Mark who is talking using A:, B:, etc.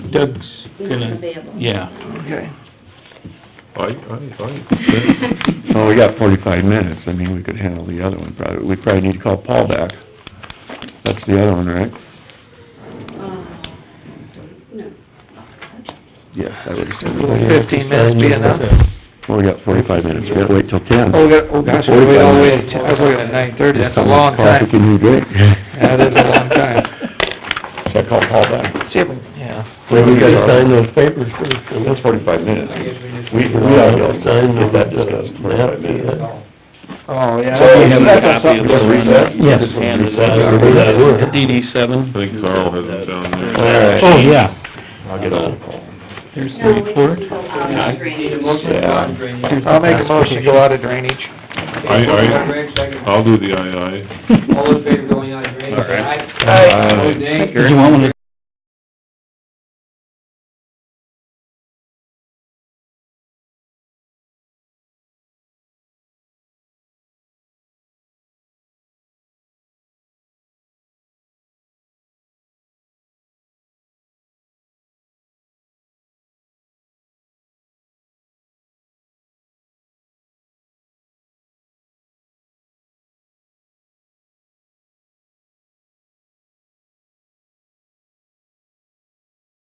A: Doug's
B: He's
A: gonna,
B: available.
A: yeah.
C: Okay.
D: I, I,
E: Well, we got forty-five minutes, I mean, we could handle the other one probably, we probably need to call Paul back. That's the other one, right?
B: Uh, No.
E: Yes, I would
C: Will
E: assume.
C: fifteen minutes be enough?
E: Well, we got forty-five minutes, we gotta wait till ten.
C: Oh, we got, oh gosh, we all waited, till- I was looking at nine thirty, that's a long time.
E: Coffee can be great.
C: That is a long time.
E: So I call Paul back.
C: See if we, yeah,
D: Well, we gotta sign those papers first, and
E: That's
D: that's,
E: forty-five minutes.
D: we, we ought to sign the, the map, yeah.
C: oh, yeah.
E: So we have a
C: That's
E: copy of
C: something-
E: the recess?
D: Yes.
A: DD seven.
F: think Carl has it down there.
D: All right.
A: Oh, yeah.
E: I'll get on Paul.
A: There's
B: No, we
A: thirty-four.
B: can go out of drainage.
E: Yeah.
C: I'll make a motion to go out of drainage.
F: I, I, I'll do the I I.
G: All in favor going on drainage?
A: All right.
C: Oh,
G: Aye. Opposed, nay?
A: Did you want one to